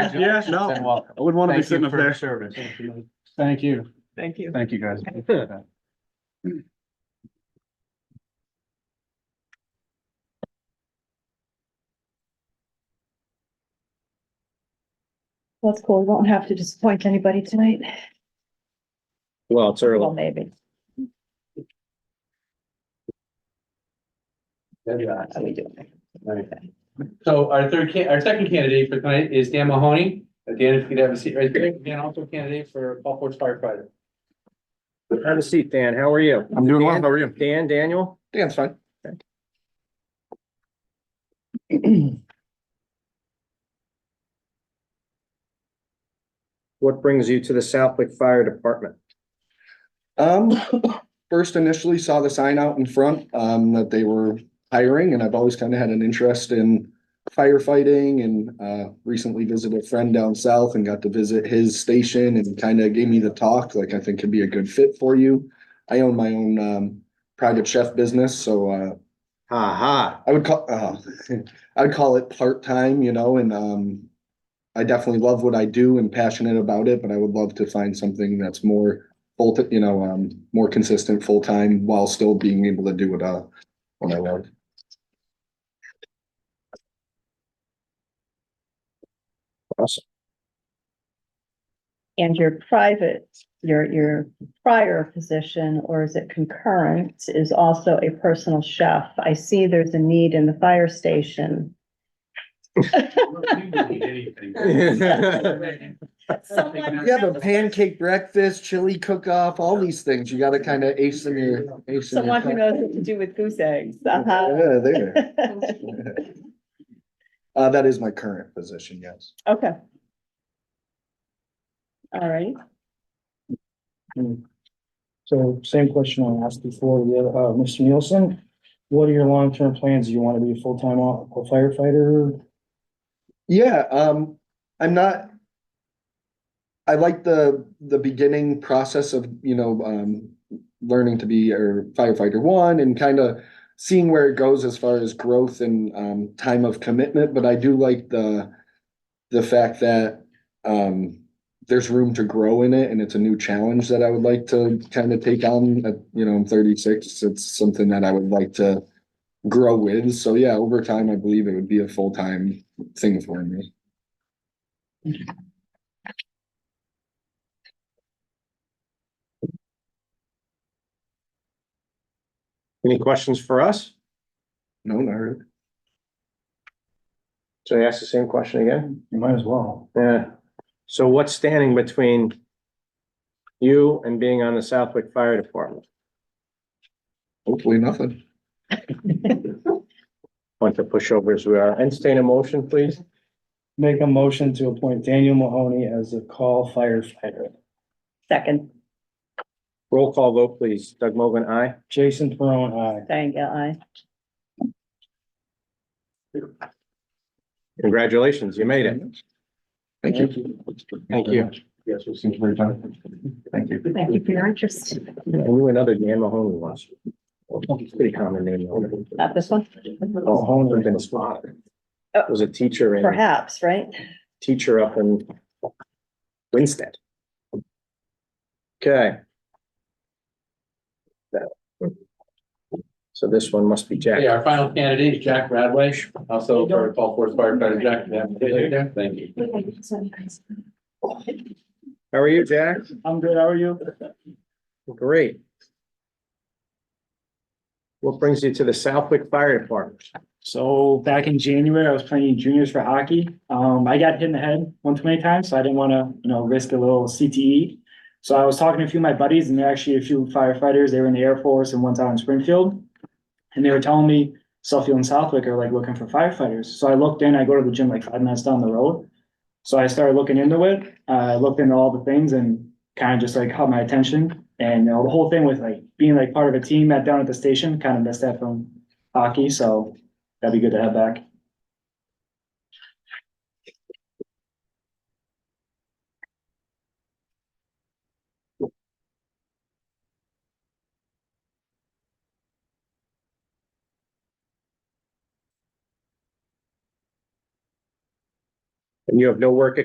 Congratulations Yeah, no. and welcome. I wouldn't want to be Thank sitting you up for your there. service. Thank you. Thank you. Thank you, guys. That's cool. We won't have to disappoint anybody tonight. Well, it's Well, early. maybe. Are Oh, we doing? Okay. So our third can, our second candidate for tonight is Dan Mahoney. Uh, Dan, if you could have a seat right there. Dan also candidate for Gulf Force firefighter. Have a seat, Dan. How are you? I'm doing well. How are you? Dan, Daniel? Dan's fine. What brings you to the Southwick Fire Department? Um, first initially saw the sign out in front, um, that they were hiring and I've always kind of had an interest in firefighting and, uh, recently visited a friend down south and got to visit his station and kind of gave me the talk, like I think could be a good fit for you. I own my own, um, private chef business, so, uh, Ha ha. I would call, uh, I'd call it part-time, you know, and, um, I definitely love what I do and passionate about it, but I would love to find something that's more full, you know, um, more consistent, full-time while still being able to do what, uh, what I love. And your private, your, your prior position, or is it concurrent, is also a personal chef. I see there's a need in the fire station. Someone You have a pancake breakfast, chili cook-off, all these things. You gotta kind of ace in your, ace in your. Someone who knows what to do with goose eggs. Uh-huh. Yeah, there. Uh, that is my current position, yes. Okay. All right. So same question I asked before, the other, uh, Mr. Nielsen, what are your long-term plans? Do you want to be a full-time o- firefighter? Yeah, um, I'm not. I like the, the beginning process of, you know, um, learning to be or firefighter one and kind of seeing where it goes as far as growth and, um, time of commitment, but I do like the, the fact that, um, there's room to grow in it and it's a new challenge that I would like to kind of take on, at, you know, I'm thirty-six, it's something that I would like to grow with, so yeah, over time, I believe it would be a full-time thing for me. Any questions for us? No, not really. So I ask the same question again? You might as well. Yeah. So what's standing between you and being on the Southwick Fire Department? Hopefully nothing. Bunch of pushovers we are. Entertain a motion, please. Make a motion to appoint Daniel Mahoney as a call firefighter. Second, Roll call vote, please. Doug Mogul, aye. Jason Perone, aye. Diane Gale, aye. Congratulations, you made it. Thank you. Thank you. Yes, we'll see you very time. Thank you. Thank you for your interest. I knew another Dan Mahoney once. Pretty common name. though. Not this one? Mahoney would have been spotted. Oh. Was a teacher in. Perhaps, right? teacher up in Winstead. Okay. That one. So this one must be Okay, Jack. our final candidate is Jack Radway, also for Gulf Force firefighter. Jack, you have a seat right there. thank you. How are you, Jack? I'm good, how are you? Great. What brings you to the Southwick Fire Department? So back in January, I was playing juniors for hockey. Um, I got hit in the head one too many times, so I didn't want to, you know, risk a little CTE. So I was talking to a few of my buddies and they're actually a few firefighters. They were in the Air Force and one's out in Springfield. And they were telling me Suffield and Southwick are like looking for firefighters. So I looked in, I go to the gym like five minutes down the road. So I started looking into it. Uh, I looked into all the things and kind of just like caught my attention. And you know, the whole thing with like being like part of a team at down at the station, kind of missed that from hockey. So That'd be good to have back. And you have no work